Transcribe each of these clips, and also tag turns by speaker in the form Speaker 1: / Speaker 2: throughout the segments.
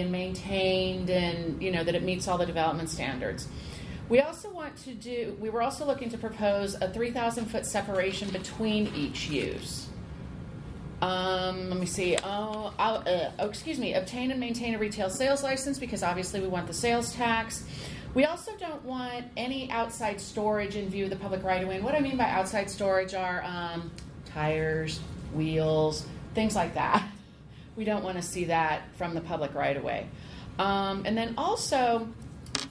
Speaker 1: and maintained and, you know, that it meets all the development standards. We also want to do, we were also looking to propose a 3,000 foot separation between each use. Um, let me see. Oh, I'll, uh, oh, excuse me. Obtain and maintain a retail sales license because obviously we want the sales tax. We also don't want any outside storage in view of the public right of way. And what I mean by outside storage are um, tires, wheels, things like that. We don't want to see that from the public right of way. Um, and then also,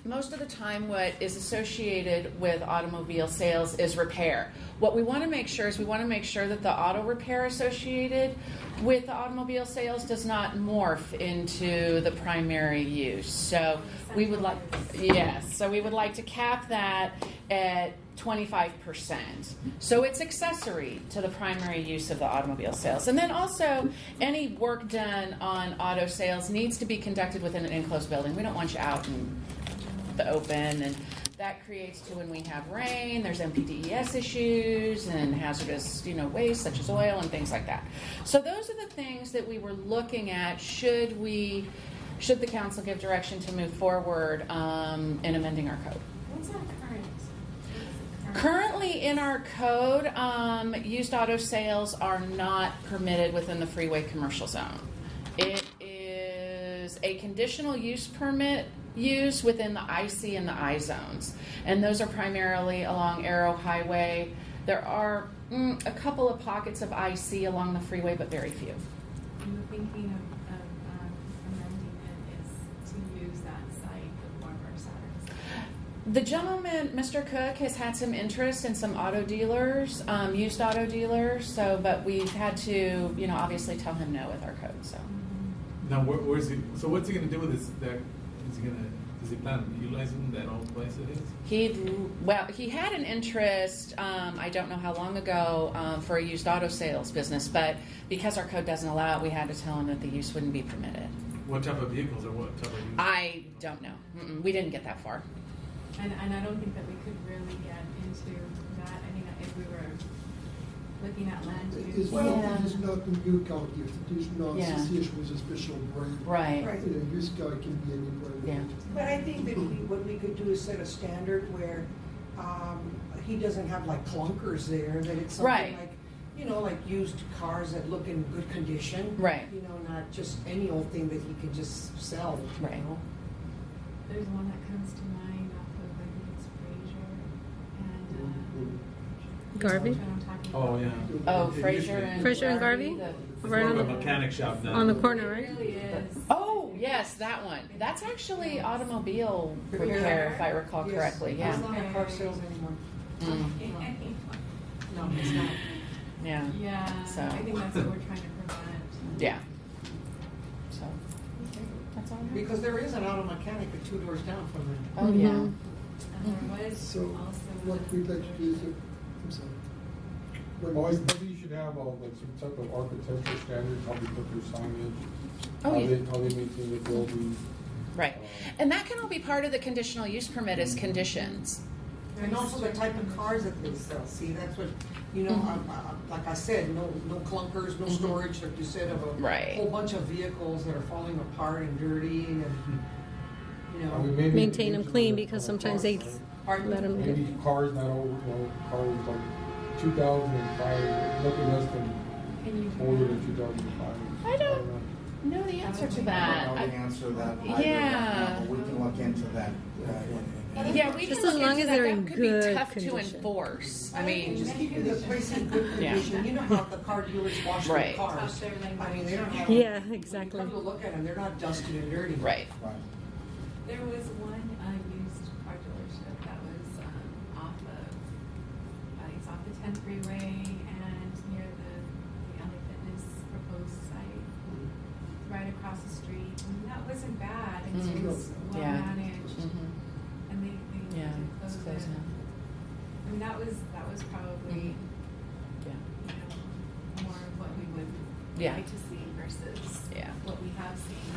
Speaker 1: most of the time what is associated with automobile sales is repair. What we want to make sure is we want to make sure that the auto repair associated with the automobile sales does not morph into the primary use. So we would like, yes, so we would like to cap that at 25%. So it's accessory to the primary use of the automobile sales. And then also, any work done on auto sales needs to be conducted within an enclosed building. We don't want you out and the open and that creates too when we have rain there's mpdes E issues and hazardous you know waste such as oil and things like that so those are the things that we were looking at should we should the council give direction to move forward um, in amending our code
Speaker 2: What's our current? What is the
Speaker 1: currently in our code um, used auto sales are not permitted within the freeway commercial zone it is a conditional use permit used within the IC and the I zones, and those are primarily along Arrow Highway. There are mm, a couple of pockets of IC along the freeway, but very few.
Speaker 2: I'm thinking of, of um, amending it is to use that site, the former Saturn.
Speaker 1: The gentleman, Mr. Cook, has had some interest in some auto dealers, um, used auto dealers. So, but we've had to, you know, obviously tell him no with our code. So.
Speaker 3: Now, where, where's he? So, what's he gonna do with this? That is he gonna? Does he plan on utilizing that old place it is?
Speaker 1: He well, he had an interest. Um, I don't know how long ago um, for a used auto sales business, but because our code doesn't allow it, we had to tell him that the use wouldn't be permitted.
Speaker 3: What type of vehicles or what type of? Use?
Speaker 1: I don't know. Mm-mm, we didn't get that far.
Speaker 2: And, and I don't think that we could really get into that, I mean, if we were looking at land
Speaker 4: It
Speaker 2: use.
Speaker 4: is
Speaker 1: Yeah.
Speaker 4: not, it is not a new car gift, it is not
Speaker 1: Yeah.
Speaker 4: associated with a special brand.
Speaker 1: Right.
Speaker 5: Right.
Speaker 4: You know, used car can be any brand.
Speaker 1: Yeah.
Speaker 5: But I think that we, what we could do is set a standard where, um, he doesn't have like clunkers there, that it's
Speaker 1: Right.
Speaker 5: something like, you know, like used cars that look in good condition.
Speaker 1: Right.
Speaker 5: You know, not just any old thing that he can just sell, you
Speaker 1: Right.
Speaker 5: know?
Speaker 2: There's one that comes to mind off of, I think it's Fraser and, um.
Speaker 6: Garvey?
Speaker 2: which one I'm talking
Speaker 3: Oh,
Speaker 2: about.
Speaker 3: yeah.
Speaker 1: Oh,
Speaker 3: It used to
Speaker 1: Fraser
Speaker 3: be-
Speaker 1: and
Speaker 6: Fraser and Garvey?
Speaker 1: the-
Speaker 3: It's
Speaker 6: Right
Speaker 3: more
Speaker 6: on
Speaker 3: of
Speaker 6: the-
Speaker 3: a mechanic shop now.
Speaker 6: on the corner.
Speaker 2: It
Speaker 6: right?
Speaker 2: really is.
Speaker 1: Oh yes, that one. That's actually automobile repair, if I recall
Speaker 5: Yes.
Speaker 1: correctly.
Speaker 5: He's
Speaker 1: Yeah.
Speaker 5: not a car sales anymore.
Speaker 1: Mm,
Speaker 5: No, he's not.
Speaker 1: yeah. Mm-hmm.
Speaker 2: Yeah,
Speaker 1: So.
Speaker 2: I think that's what we're trying to prevent.
Speaker 1: Yeah. So that's all. I have.
Speaker 5: Because there is an auto mechanic at two doors down from him.
Speaker 1: Oh yeah.
Speaker 6: Mhm.
Speaker 2: And there was
Speaker 4: So
Speaker 2: also.
Speaker 4: what
Speaker 2: one-
Speaker 4: we'd like to do is, uh, I'm sorry. What-
Speaker 7: Well, I think you should have uh, like some type of architectural standards, how they put their signage,
Speaker 1: Oh,
Speaker 7: how
Speaker 1: yeah.
Speaker 7: they, how they maintain the building. Uh,
Speaker 1: Right. And that can all be part of the conditional use permit as conditions.
Speaker 5: And also the type of cars that they sell, see, that's what, you know,
Speaker 1: Mm-hmm.
Speaker 5: I- I- like I said, no, no clunkers, no storage, like you said, of
Speaker 1: Right.
Speaker 5: a whole bunch of vehicles that are falling apart and dirty and, you
Speaker 7: I mean,
Speaker 5: know.
Speaker 7: maybe-
Speaker 6: Maintain them
Speaker 7: maybe
Speaker 6: clean
Speaker 7: some-
Speaker 6: because
Speaker 7: uh,
Speaker 6: sometimes
Speaker 7: cars,
Speaker 6: they
Speaker 7: right?
Speaker 5: Pardon?
Speaker 6: let them
Speaker 7: Maybe cars not over, you know, cars like two thousand and five, nothing less than
Speaker 2: Can you do
Speaker 7: older
Speaker 2: that?
Speaker 7: than two thousand and five.
Speaker 1: I don't- No, the answer to
Speaker 8: I
Speaker 1: that.
Speaker 8: don't know the
Speaker 1: I-
Speaker 8: answer to that either right
Speaker 1: Yeah.
Speaker 8: now, but we can look into that. uh, in- in-
Speaker 1: Yeah, we
Speaker 6: Just
Speaker 1: can
Speaker 6: as
Speaker 1: look
Speaker 6: long
Speaker 1: into
Speaker 6: as
Speaker 1: that.
Speaker 6: they're
Speaker 1: That
Speaker 6: in
Speaker 1: could be
Speaker 6: good
Speaker 1: tough to
Speaker 6: condition.
Speaker 1: enforce. I
Speaker 5: And
Speaker 1: mean,
Speaker 5: Just keeping the place in good
Speaker 1: Yeah.
Speaker 5: condition, you know how the car dealers wash
Speaker 1: Right.
Speaker 5: their
Speaker 2: Up
Speaker 5: cars.
Speaker 2: there, like,
Speaker 5: I mean, they don't have.
Speaker 6: Yeah,
Speaker 5: when you
Speaker 6: exactly.
Speaker 5: Come to look at them, they're not dusty and dirty.
Speaker 1: right.
Speaker 8: Right.
Speaker 2: There was one uh, used car dealership that was um, off of, uh, it's off the 10 freeway and near the, the LA Fitness proposed site,
Speaker 4: Mm-hmm.
Speaker 2: right across the street. And that wasn't bad. It
Speaker 1: Mm.
Speaker 2: was well
Speaker 1: Yeah.
Speaker 2: managed,
Speaker 6: Mm-hmm.
Speaker 1: Mhm.
Speaker 2: and they, they
Speaker 1: Yeah,
Speaker 2: did
Speaker 1: it's
Speaker 2: close it.
Speaker 1: closed now. Mm-hmm.
Speaker 2: I mean, that was that was probably
Speaker 1: Yeah.
Speaker 2: you know more of what we would
Speaker 1: Yeah.
Speaker 2: like to see versus
Speaker 1: Yeah.
Speaker 2: what we have seen.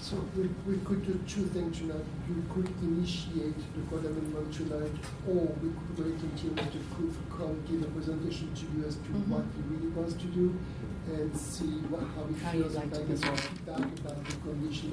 Speaker 4: So we, we could do two things tonight. You could initiate the code amendment tonight, or we could wait until Mr. Cook come give a presentation to you as to
Speaker 1: Mhm.
Speaker 4: what he really wants to do and see what, how he
Speaker 1: How you'd
Speaker 4: feels
Speaker 1: like
Speaker 4: about
Speaker 1: to
Speaker 4: the
Speaker 1: resolve.
Speaker 4: feedback about the condition